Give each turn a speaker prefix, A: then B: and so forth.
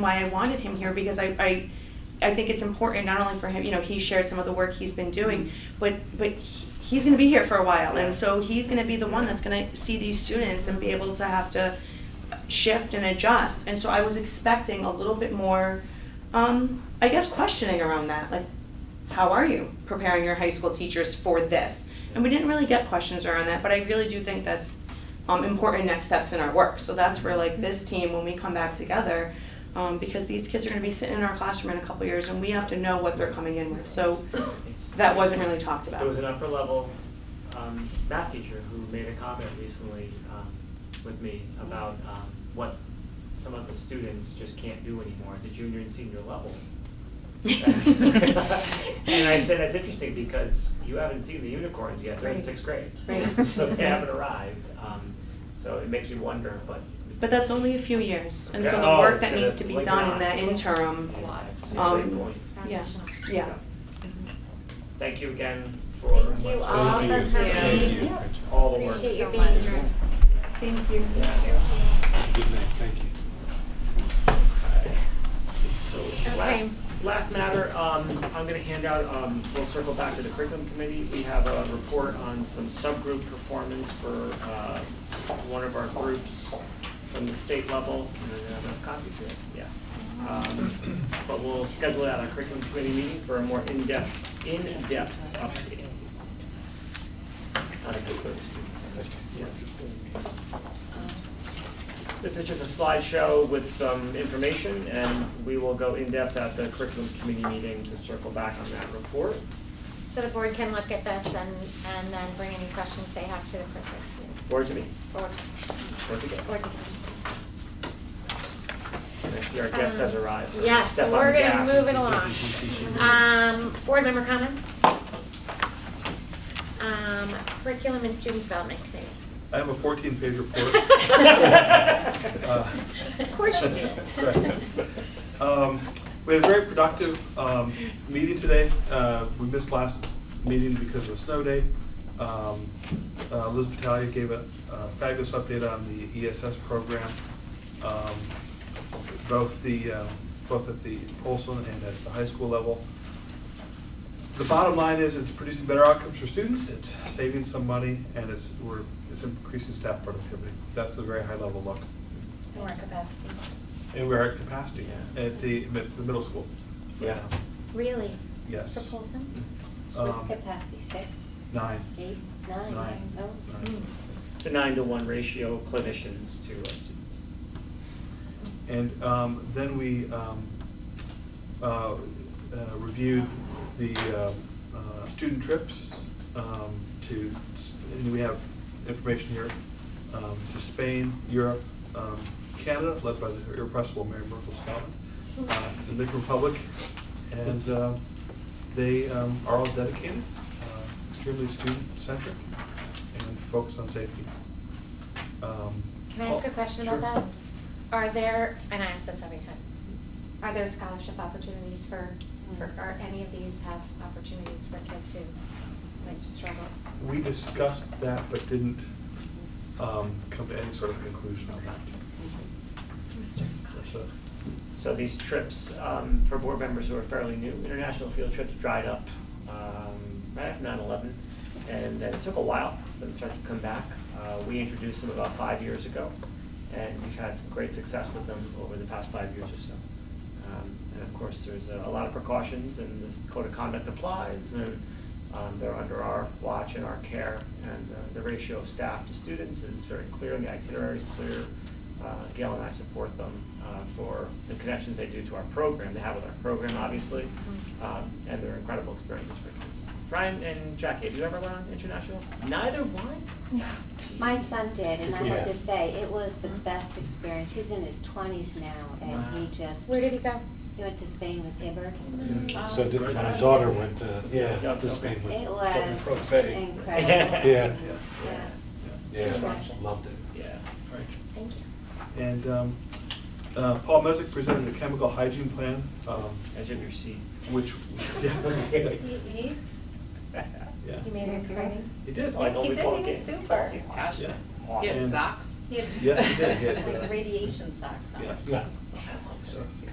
A: why I wanted him here because I, I, I think it's important not only for him, you know, he shared some of the work he's been doing, but, but he- he's gonna be here for a while, and so he's gonna be the one that's gonna see these students and be able to have to shift and adjust, and so I was expecting a little bit more, um, I guess questioning around that, like, how are you preparing your high school teachers for this? And we didn't really get questions around that, but I really do think that's um, important next steps in our work. So that's where like this team, when we come back together, um, because these kids are going to be sitting in our classroom in a couple years, and we have to know what they're coming in with. So
B: It's-
A: that wasn't really talked about.
B: There was an upper level um, math teacher who made a comment recently um, with me about um, what some of the students just can't do anymore at the junior and senior level. And I said, that's interesting because you haven't seen the unicorns yet, they're in
A: Right.
B: sixth grade.
A: Right.
B: So they haven't arrived, um, so it makes you wonder, but.
A: But that's only a few years, and so
B: Yeah,
A: the
B: oh,
A: work
B: it's
A: that
B: gonna
A: needs to be
B: linger
A: done in
B: on.
A: that interim,
B: Yeah, that's a
A: um,
B: great point.
A: yeah,
C: Transitional.
A: yeah.
B: Thank you again for.
C: Thank you all for
D: Thank you. Thank
C: coming.
D: you.
B: All the work.
C: Appreciate you
E: so
C: being
E: much.
C: here.
A: Thank you.
D: Good night, thank you.
B: So,
C: Okay.
B: last, last matter, um, I'm gonna hand out, um, we'll circle back to the curriculum committee. We have a report on some subgroup performance for, uh, one of our groups from the state level. And then I have copies here, yeah. Um, but we'll schedule out a curriculum committee meeting for a more in-depth, in-depth update. On a curriculum students, that's right, yeah. This is just a slideshow with some information, and we will go in-depth at the curriculum committee meeting to circle back on that report.
C: So the board can look at this and, and then bring any questions they have to the curriculum committee.
B: Forward to me,
C: Or to-
B: forward to
C: or
B: go.
C: to the committee.
B: And I see our guest has
C: Um,
B: arrived. so
C: Yes,
B: step
C: so
B: on
C: we're
B: the
C: gonna
B: gas.
C: move it along. Um, board member comments? Um, curriculum and student development committee.
D: I have a 14-page Uh,
C: Of course you do.
D: Um, We had a very productive um, meeting today. Uh, We missed last meeting because of the snow day. Um, uh, Liz Battaglia gave a a fabulous update on the ESS program, um, both the, uh, both at the Olson and at the high school level. The bottom line is it's producing better outcomes for students, it's saving some money, and it's, we're, it's increasing staff productivity. That's the very high-level look.
E: More capacity.
D: And we're at capacity
B: Yeah.
D: at the, mi- the middle school.
B: Yeah.
C: Really?
D: Yes.
C: For Polson?
E: What's
D: Um,
E: capacity, six,
D: Nine.
E: eight, nine?
D: Nine.
E: Oh.
D: Nine.
B: It's a nine to one ratio clinicians to our students.
C: Hmm.
D: And um, then we um, uh, uh, reviewed the uh, uh, student trips um, to, S- and we have information here, um, to Spain, Europe, um, Canada, led by the irrepressible Mary Merkel Scotland, uh, the Dominican Republic, and uh, they um, are all dedicated, uh, extremely student-centric, and focused on safety. Um,
C: Can I ask a question about
D: sure.
C: that? Are there, and I ask this every time, are there scholarship opportunities for, for, are any of these have opportunities for kids who might struggle?
D: We discussed that, but didn't um, come to any sort of conclusion on that. So,
B: So these trips, um, for board members who are fairly new, international field trips dried up, um, right after nine eleven. And then it took a while for them to start to come back. Uh, we introduced them about five years ago, and we've had some great success with them over the past five years or so. Um, and of course, there's a, a lot of precautions and the code of conduct applies and, um, they're under our watch and our care. And uh, the ratio of staff to students is very clear and the itinerary is clear. Uh, Gail and I support them uh, for the connections they do to our program, they have with our program, obviously,
E: Mm-hmm.
B: um, and they're incredible experiences for kids. Brian and Jackie, have you ever gone international? Neither one?
E: My son did, and I
D: Yeah.
E: have to say, it was the best experience. He's in his twenties now, and
B: Wow.
E: he just,
C: Where did he go?
E: he went to Spain with Oh. Hibbert.
D: Yeah.
F: So did, my
B: Nice.
F: daughter went to, yeah,
B: Yeah,
F: to Spain with.
E: It was
F: Buffet.
E: incredible.
F: Yeah.
E: Yeah.
F: Yeah, loved it.
B: Yeah.
D: all right.
C: Thank you.
D: And um, uh, Paul Mesick presented the chemical hygiene plan, um,
B: Edge of your seat.
D: which, yeah, yeah.
C: You made it exciting.
B: He did, like,
G: He
B: only
G: did,
B: four
G: he was
B: games.
G: super.
D: Yeah.
G: He
D: And-
G: had socks.
D: Yes, he did, he had, uh,
G: Like radiation socks on.
D: Yes.
F: Yeah.
D: So-